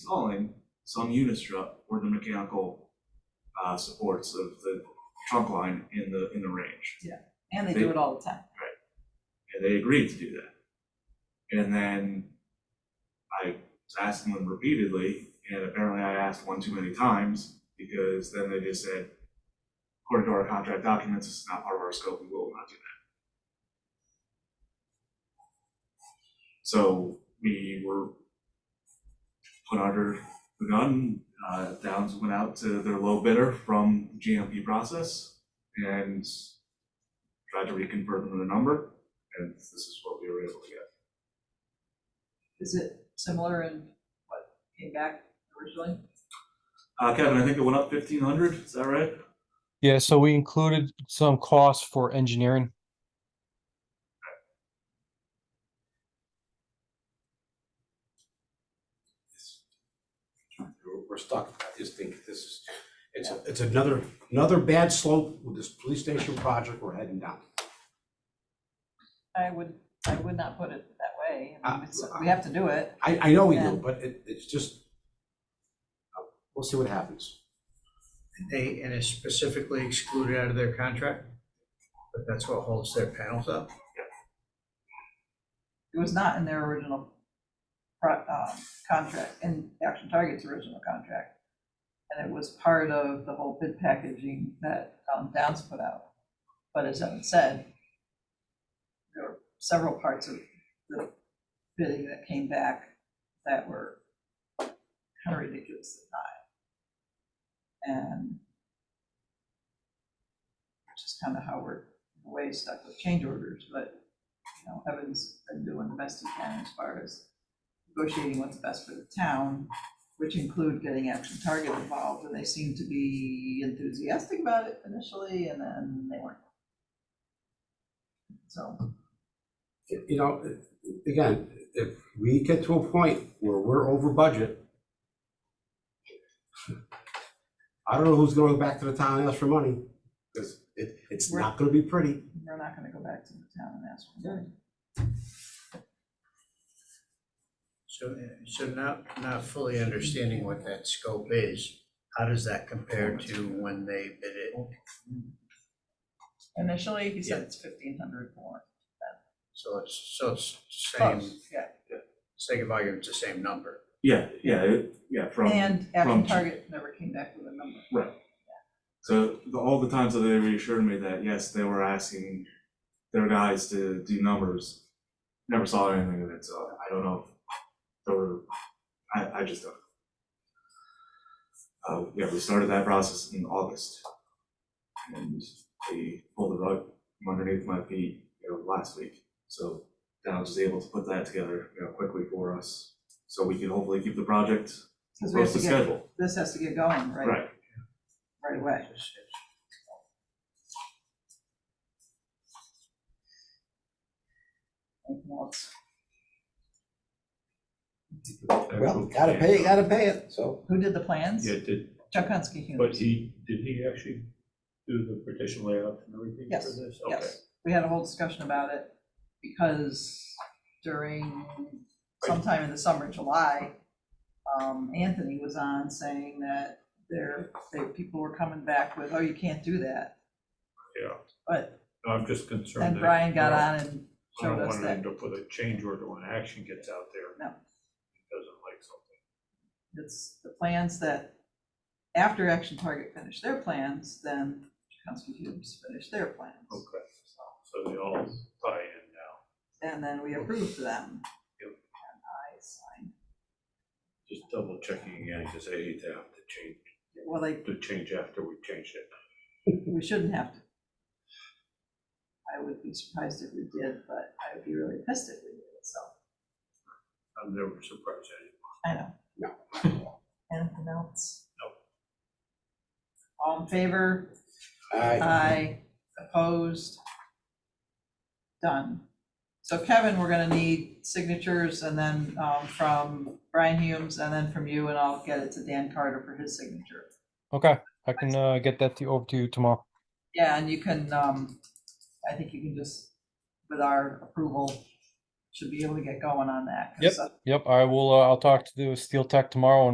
installing some unistrut or the mechanical uh, supports of the trunk line in the, in the range. And they do it all the time. And they agreed to do that. And then I was asking them repeatedly, and apparently I asked one too many times, because then they just said, according to our contract documents, it's not part of our scope, we will not do that. So we were put under the gun, uh, Downs went out to their low bidder from GMP process and tried to reconvert them to the number and this is what we were able to get. Is it similar in what came back originally? Uh, Kevin, I think it went up fifteen hundred, is that right? Yeah, so we included some costs for engineering. We're- We're stuck, I just think this is, it's, a- it's another, another bad slope with this police station project we're heading down. I would, I would not put it that way. I mean, Uh, it's- We have to do it. I, I know we Yeah. do, but it, it's just, uh, we'll see what happens. They, and it's specifically excluded out of their contract, but that's what holds their panels up. It was not in their original pro- uh, contract, in Action Target's original contract. And it was part of the whole bid packaging that um, Downs put out. But as Evan said, there were several parts of the bidding that came back that were kind of ridiculously high. And which is kind of how we're, in a way, stuck with change orders, but you know, Evan's been doing the best he can as far as negotiating what's best for the town, which include getting Action Target involved, and they seemed to be enthusiastic about it initially, and then they weren't. So, You you know, again, if we get to a point where we're over budget, I don't know who's gonna go back to the town and ask for money, because it, it's not gonna be pretty. we're not gonna go back to the town and ask for money. So, so not, not fully understanding what that scope is, how does that compare to when they bid it? Initially, he said it's fifteen hundred more. So it's, so it's same, Close, Yeah, second volume, it's the same number. Yeah, yeah, it- yeah, from, and Action from- Target never came back with a number. so the- all the times that they reassured me that, yes, they were asking their guys to do numbers. Never saw anything of it, so I don't know. if There were, I, I just don't. Uh, yeah, we started that process in August. And they pulled the rug from underneath my feet, you know, last week. So Downs was able to put that together, you know, quickly for us, so we can hopefully keep the project 'Cause we have close to to get- schedule. This has to get going, right, Right, right away. Anything else? Well, gotta pay, gotta pay it, so. Who did the plans? Yeah, did, Chuck Hunsky but Hughes. he, did he actually do the partition layout and everything for Yes, this? Okay. Yes, we had a whole discussion about it because during sometime in the summer, July, um, Anthony was on saying that there, there, people were coming back with, oh, you can't do that. Yeah. But No, I'm just concerned. then that, Brian got you know, on and showed us I don't that want to end up with a change order when action gets out there. No. It Doesn't like something. it's the plans that, after Action Target finished their plans, then Chuck Hunsky Hughes finished their plans. Okay. So they all tie in now. And then we approved them. Yep. And I signed Just double checking again, because I hate to have to change, Well, they, to change after we changed it. we shouldn't have to. I would be surprised if we did, but I would be really pissed if we did, so, I'm never surprised at it. I know. No. Anything else? Nope. All in favor? Aye. Opposed? Done. So Kevin, we're gonna need signatures and then, um, from Brian Humes and then from you, and I'll get it to Dan Carter for his signature. Okay, I can uh, get that to, over to you tomorrow. Yeah, and you can, um, I think you can just, with our approval, should be able to get going on that. 'cause Yep. that's- Yep, I will, uh, I'll talk to the Steel Tech tomorrow and